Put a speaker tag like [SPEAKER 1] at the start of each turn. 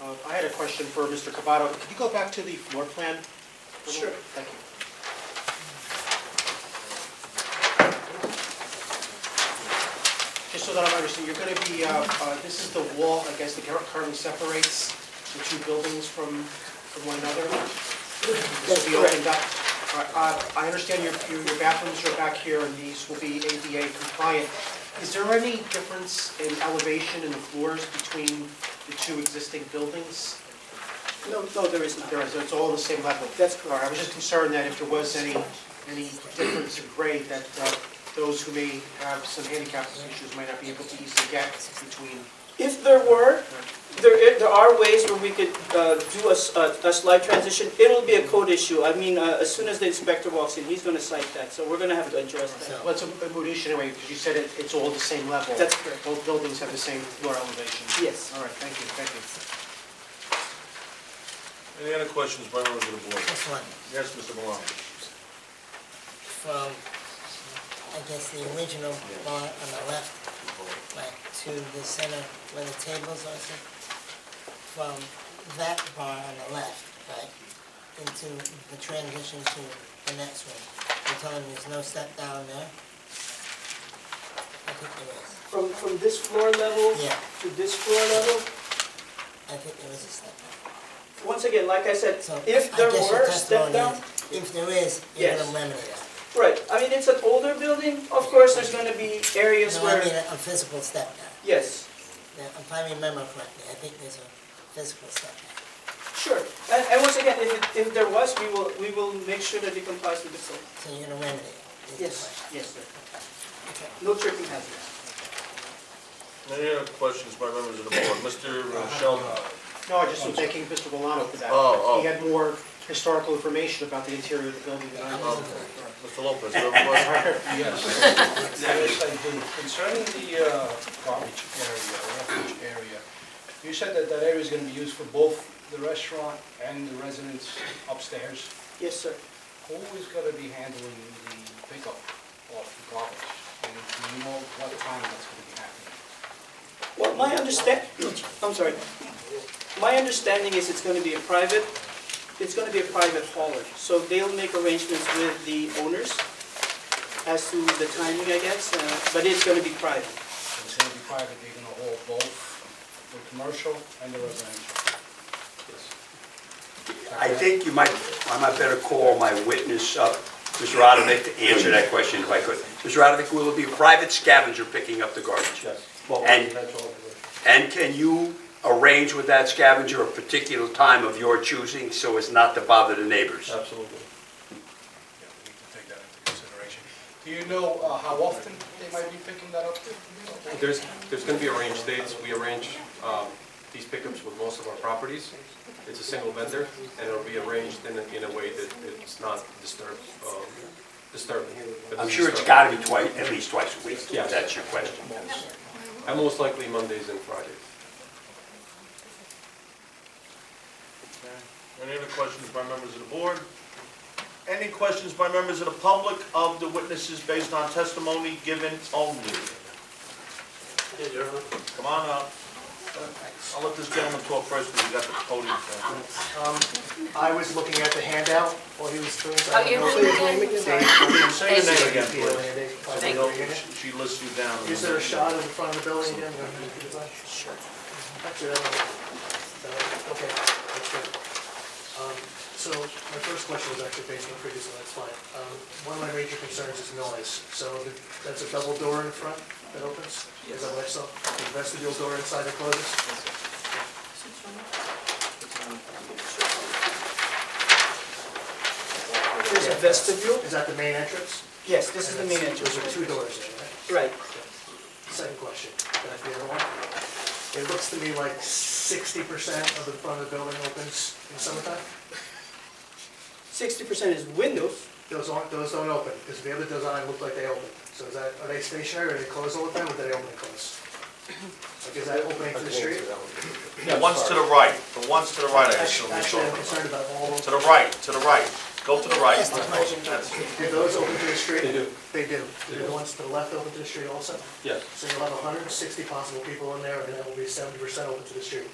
[SPEAKER 1] Uh, I had a question for Mr. Cavato. Could you go back to the floor plan? for a
[SPEAKER 2] Sure.
[SPEAKER 1] moment? Thank you. Just so that I'm understanding, you're going to be, uh, uh, this is the wall, I guess, that cur- currently separates the two buildings from, from one another? This will be
[SPEAKER 2] correct.
[SPEAKER 1] opened up. All right, uh, I understand your, your your bathrooms are back here and these will be ADA compliant. Is there any difference in elevation in the floors between the two existing buildings?
[SPEAKER 2] No, no, there is not.
[SPEAKER 1] There is, it's all on the same level?
[SPEAKER 2] That's
[SPEAKER 1] All right, I
[SPEAKER 2] correct.
[SPEAKER 1] was just concerned that if there was any, any difference in grade, that uh, those who may have some handicap issues might not be able to easily get between.
[SPEAKER 2] If there were, there, i- there are ways where we could uh, do a, s- a- a slight transition. It'll be a code issue. I mean, uh, as soon as the inspector walks in, he's gonna cite that, so we're gonna have to address that.
[SPEAKER 1] Well, it's a a moot issue anyway, because you said it, it's all the same level.
[SPEAKER 2] That's correct.
[SPEAKER 1] Both buildings have the same floor elevation.
[SPEAKER 2] Yes.
[SPEAKER 1] All right, thank you, thank you.
[SPEAKER 3] Any other questions by members of the board?
[SPEAKER 4] Just one,
[SPEAKER 3] Yes, Mr. Maloney.
[SPEAKER 4] from, I guess, the original bar on the left, like to the center where the tables are, so from that bar on the left, right, into the transition to the next one. You're telling me there's no step down there? I think there is.
[SPEAKER 2] From, from this floor level
[SPEAKER 4] Yeah,
[SPEAKER 2] to this floor level,
[SPEAKER 4] I think there is a step down.
[SPEAKER 2] once again, like I said,
[SPEAKER 4] So
[SPEAKER 2] if
[SPEAKER 4] I
[SPEAKER 2] there
[SPEAKER 4] guess your
[SPEAKER 2] were step
[SPEAKER 4] testimony
[SPEAKER 2] down,
[SPEAKER 4] is, If there is, you're
[SPEAKER 2] Yes.
[SPEAKER 4] gonna eliminate it.
[SPEAKER 2] right, I mean, it's an older building, of course, there's gonna be areas
[SPEAKER 4] No, I mean, uh,
[SPEAKER 2] where,
[SPEAKER 4] a a physical step down.
[SPEAKER 2] yes.
[SPEAKER 4] Now, if I remember correctly, I think there's a physical setback.
[SPEAKER 2] Sure, and, and once again, if, it- if there was, we will, we will make sure that it complies with the code.
[SPEAKER 4] So you're gonna remedy it. is the
[SPEAKER 2] Yes,
[SPEAKER 4] question.
[SPEAKER 2] yes, sir.
[SPEAKER 4] Okay.
[SPEAKER 2] No tripping hazards.
[SPEAKER 3] Any other questions by members of the board? Mr. Sheldon?
[SPEAKER 1] No, I just was thanking Mr. Valano for that.
[SPEAKER 3] Oh, oh.
[SPEAKER 1] He had more historical information about the interior of the building than I
[SPEAKER 3] Um,
[SPEAKER 1] did.
[SPEAKER 5] Oh.
[SPEAKER 3] Mr. Lopez, you have a question?
[SPEAKER 6] Yes, yes, I do. Concerning the uh, garbage area, refuge area, you said that that area is going to be used for both the restaurant and the residents upstairs.
[SPEAKER 2] Yes, sir.
[SPEAKER 6] Who is going to be handling the pickup of the garbage? And do you know what time that's going to be happening?
[SPEAKER 2] Well, my understand, I'm sorry. My understanding is it's gonna be a private, it's gonna be a private hauler. So they'll make arrangements with the owners as to the timing, I guess, uh, but it's gonna be private.
[SPEAKER 6] It's going to be private, they're going to haul both the commercial and the residential?
[SPEAKER 7] I think you might, I might better call my witness up, Mr. Radovic, to answer that question if I could. Mr. Radovic, will it be a private scavenger picking up the garbage? And, and can you arrange with that scavenger a particular time of your choosing so as not to bother the neighbors?
[SPEAKER 3] Absolutely.
[SPEAKER 6] Yeah, we need to take that into consideration. Do you know uh, how often they might be picking that up?
[SPEAKER 8] There's, there's going to be arranged dates. We arrange um, these pickups with most of our properties. It's a single vendor, and it'll be arranged in a, in a way that it's not disturbed, um, disturbing. but
[SPEAKER 7] I'm sure it's
[SPEAKER 8] disturbing.
[SPEAKER 7] got to be twice, at least twice a week,
[SPEAKER 8] Yeah.
[SPEAKER 7] if that's your question.
[SPEAKER 8] And most likely Mondays and Fridays.
[SPEAKER 3] Any other questions by members of the board? Any questions by members of the public of the witnesses based on testimony given only? Come on up. I'll let this gentleman talk first because we got the podium.
[SPEAKER 5] I was looking at the handout while he was doing
[SPEAKER 9] Oh,
[SPEAKER 5] that.
[SPEAKER 9] you were looking at-
[SPEAKER 3] Say your name again, please.
[SPEAKER 9] Thank
[SPEAKER 3] No,
[SPEAKER 5] please.
[SPEAKER 3] She lists you down.
[SPEAKER 5] Is there a shot of the front of the building again? Sure. Actually, I don't know. Okay, that's good. Um, So my first question was actually based on the previous one, that's fine. Um, One of my major concerns is noise. So the- that's a double door in front that opens? Is that what I saw? The vestibule door inside that closes?
[SPEAKER 2] There's a vestibule?
[SPEAKER 5] Is that the main entrance?
[SPEAKER 2] Yes, this is the main entrance.
[SPEAKER 5] Those are two doors there, right?
[SPEAKER 2] Right.
[SPEAKER 5] Second question, can I have the other one? It looks to me like sixty percent of the front of the building opens in summertime.
[SPEAKER 2] Sixty percent is windows.
[SPEAKER 5] Those aren't, those don't open, because the other design looked like they open. So is that, are they stationary, are they closed all the time, or do they open and close? Like, is that opening to the street?
[SPEAKER 3] The ones to the right, the ones to the right, I assume
[SPEAKER 5] Actually,
[SPEAKER 3] you're talking
[SPEAKER 5] actually, I'm
[SPEAKER 3] about.
[SPEAKER 5] concerned about all of
[SPEAKER 3] To
[SPEAKER 5] them.
[SPEAKER 3] the right, to the right. Go to the right.
[SPEAKER 4] That's the question.
[SPEAKER 3] That's it.
[SPEAKER 5] Do those open to the street?
[SPEAKER 8] They do.
[SPEAKER 5] They do.
[SPEAKER 8] They
[SPEAKER 5] Do
[SPEAKER 8] do.
[SPEAKER 5] the ones to the left open to the street also?
[SPEAKER 8] Yes.
[SPEAKER 5] So you'll have hundred and sixty possible people in there, and that will be seventy percent open to the street.